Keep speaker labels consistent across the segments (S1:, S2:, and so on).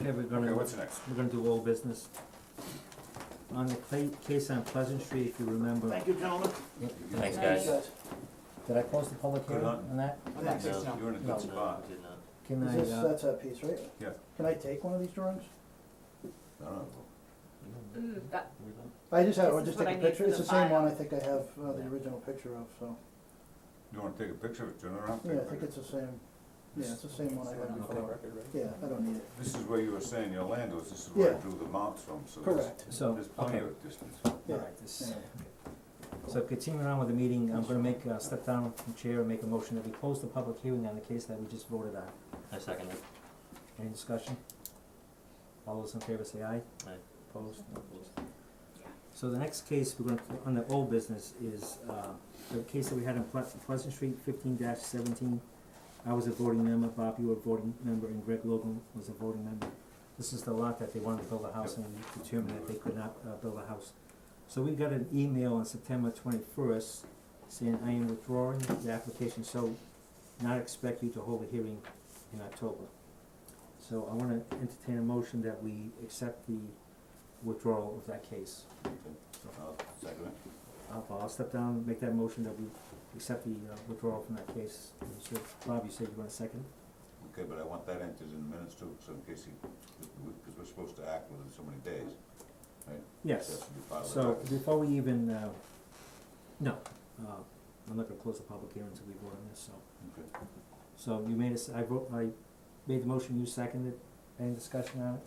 S1: Okay, we're gonna,
S2: Okay,
S1: we're
S2: what's next?
S1: gonna do all business. On the cla- case on Pleasant Street, if you remember,
S3: Thank you, gentlemen.
S1: Yep.
S4: Thanks, guys.
S1: did I close the public
S2: Good
S1: hearing
S2: on.
S1: on that?
S3: I'm not fixing
S2: You're in a
S1: No.
S2: good spot.
S4: Did not.
S1: Can
S5: Is
S1: I,
S5: this,
S1: uh,
S5: that's that piece, right?
S2: Yeah.
S5: Can I take one of these drawings?
S2: I don't know.
S6: Mm, that,
S5: I just had,
S6: This
S5: or
S6: is
S5: just
S6: what
S5: take a
S6: I need
S5: picture,
S6: for
S5: it's
S6: the
S5: the same one I
S6: file.
S5: think I have, uh, the
S1: Yeah.
S5: original picture of, so,
S2: You wanna take a picture of it, turn around?
S5: yeah,
S2: take a
S5: I think
S2: picture.
S5: it's the same, yeah, it's the same one I had before. Yeah, I don't need it.
S2: This is where you were saying your land was, this is where I
S5: Yeah.
S2: drew the marks from, so there's,
S5: Correct,
S1: so,
S2: there's plenty
S1: okay,
S2: of distance.
S5: yeah.
S1: alright, this,
S5: yeah.
S1: so continuing on with the meeting, I'm gonna make, uh, step down from chair and make a motion that we close the public hearing on the case that we just voted on.
S4: I second it.
S1: Any discussion? All those in favor say aye.
S4: Aye.
S1: Opposed? No opposed. So the next case we're gonna, on the old business is, uh, the case that we had on Ple- Pleasant Street, fifteen seventeen. I was a voting member, Bob, you were a voting member, and Greg Logan was a voting member. This is the lot that they wanted to build a house and determined that they could not, uh, build a house. So we got an email on September twenty-first saying, I am withdrawing the application, so not expect you to hold a hearing in October. So I wanna entertain a motion that we accept the withdrawal of that case.
S2: I'll second it.
S1: I'll, I'll step down and make that motion that we accept the uh, withdrawal from that case. And So Bob, you said you want a second?
S2: Okay, but I want that entered in the minutes too, so in case he, because we're supposed to act within so many days. That
S1: Yes.
S2: should be part of the
S1: So
S2: record.
S1: before we even, uh, no, uh, I'm not gonna close the public hearing until we vote on this, so.
S2: Okay.
S1: So you made us, I vote, I made the motion, you seconded. Any discussion on it?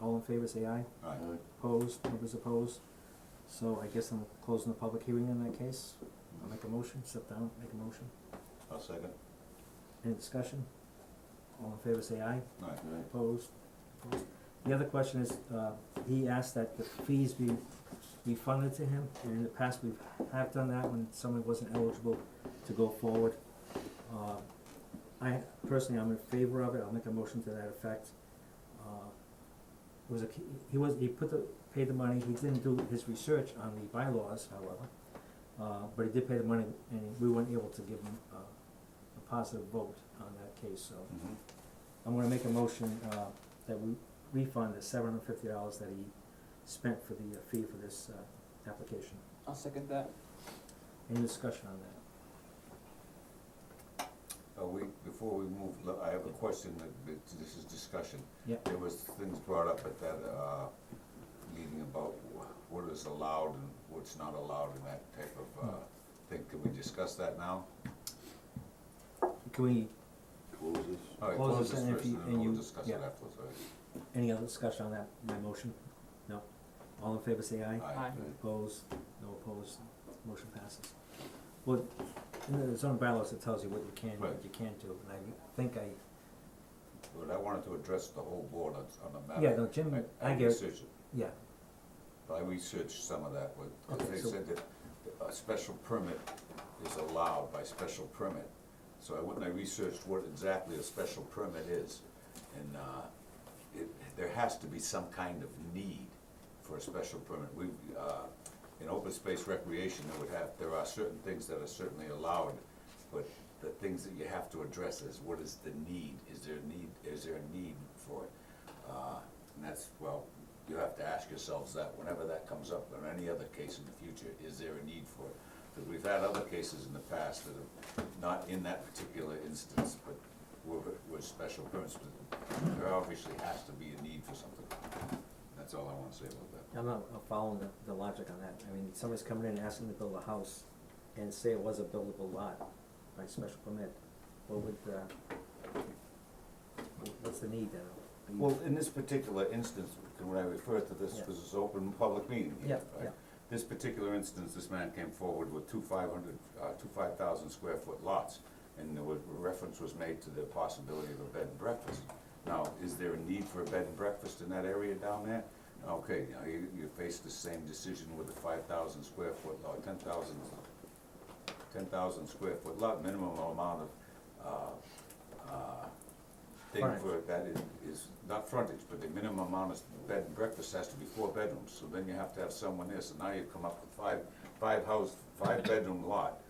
S1: All in favor, say aye.
S2: All right,
S1: Opposed, nobody's opposed. So I guess I'm closing the public hearing in that case. I'll make a motion, step down, make a motion.
S2: I'll second.
S1: Any discussion? All in favor, say aye.
S2: All right.
S1: Opposed? Opposed. The other question is, uh, he asked that the fees be refunded to him, and in the past, we have done that when someone wasn't eligible to go forward. Uh, I personally, I'm in favor of it, I'll make a motion to that effect. Uh, It was a, he was, he put the, paid the money, he didn't do his research on the bylaws, however, uh, but he did pay the money, and we weren't able to give him, uh, a positive vote on that case, so.
S2: Mhm.
S1: I'm gonna make a motion, uh, that we refund the seven hundred fifty dollars that he spent for the uh, fee for this, uh, application.
S3: I'll second that.
S1: Any discussion on that?
S2: Uh, we, before we move, look, I have a question that, that this is discussion.
S1: Yep.
S2: There was things brought up at that, uh, meeting about wh- what is allowed and what's not allowed and that type of,
S1: Hmm.
S2: uh, thing. Can we discuss that now?
S1: Can we,
S2: Closes. All right,
S1: Close this
S2: close this
S1: and if
S2: first
S1: you-
S2: and
S1: and
S2: then we'll
S1: you-
S2: discuss it
S1: yeah.
S2: afterwards, all right?
S1: any other discussion on that, my motion? No? All in favor say aye.
S2: Aye.
S1: Opposed, no opposed, motion passes. Well, in the zoning bylaws, it tells you what you can, and what
S2: Right.
S1: you can't do, and I think I,
S2: But I wanted to address the whole board on, on the matter.
S1: yeah, no, Jim, I get, it.
S2: researched it.
S1: yeah,
S2: I researched some of that with, 'cause
S1: Okay,
S2: they
S1: so-
S2: said that a special permit is allowed by special permit. So I went and I researched what exactly a special permit is. And, uh, it, there has to be some kind of need for a special permit. We, uh, in open space recreation, there would have, there are certain things that are certainly allowed, but the things that you have to address is what is the need? Is there a need, is there a need for it? Uh, and that's, well, you have to ask yourselves that whenever that comes up, or any other case in the future, is there a need for it? Because we've had other cases in the past that are not in that particular instance, but were, were special permits, but there obviously has to be a need for something. That's all I wanna say about that.
S1: I'm not uh, following the, the logic on that, I mean, somebody's coming in and asking to build a house and say it was a buildable lot by special permit, what would, uh, wh- what's the need then? Are you-
S2: Well, in this particular instance, when I refer to this,
S1: Yeah.
S2: because it's open public meeting
S1: Yeah,
S2: here, right?
S1: yeah.
S2: This particular instance, this man came forward with two five hundred, uh, two five thousand square foot lots, and there was, reference was made to the possibility of a bed and breakfast. Now, is there a need for a bed and breakfast in that area down there? Okay, now you, you face the same decision with a five thousand square foot lot, ten thousand, ten thousand square foot lot, minimum amount of, uh, uh, thing
S1: Frontage.
S2: for that is, is not frontage, but the minimum amount of bed and breakfast has to be four bedrooms, so then you have to have someone there, so now you come up with five, five house, five bedroom lot.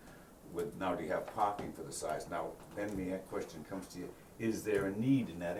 S2: With, now do you have parking for the size, now, then the question comes to you, is there a need in that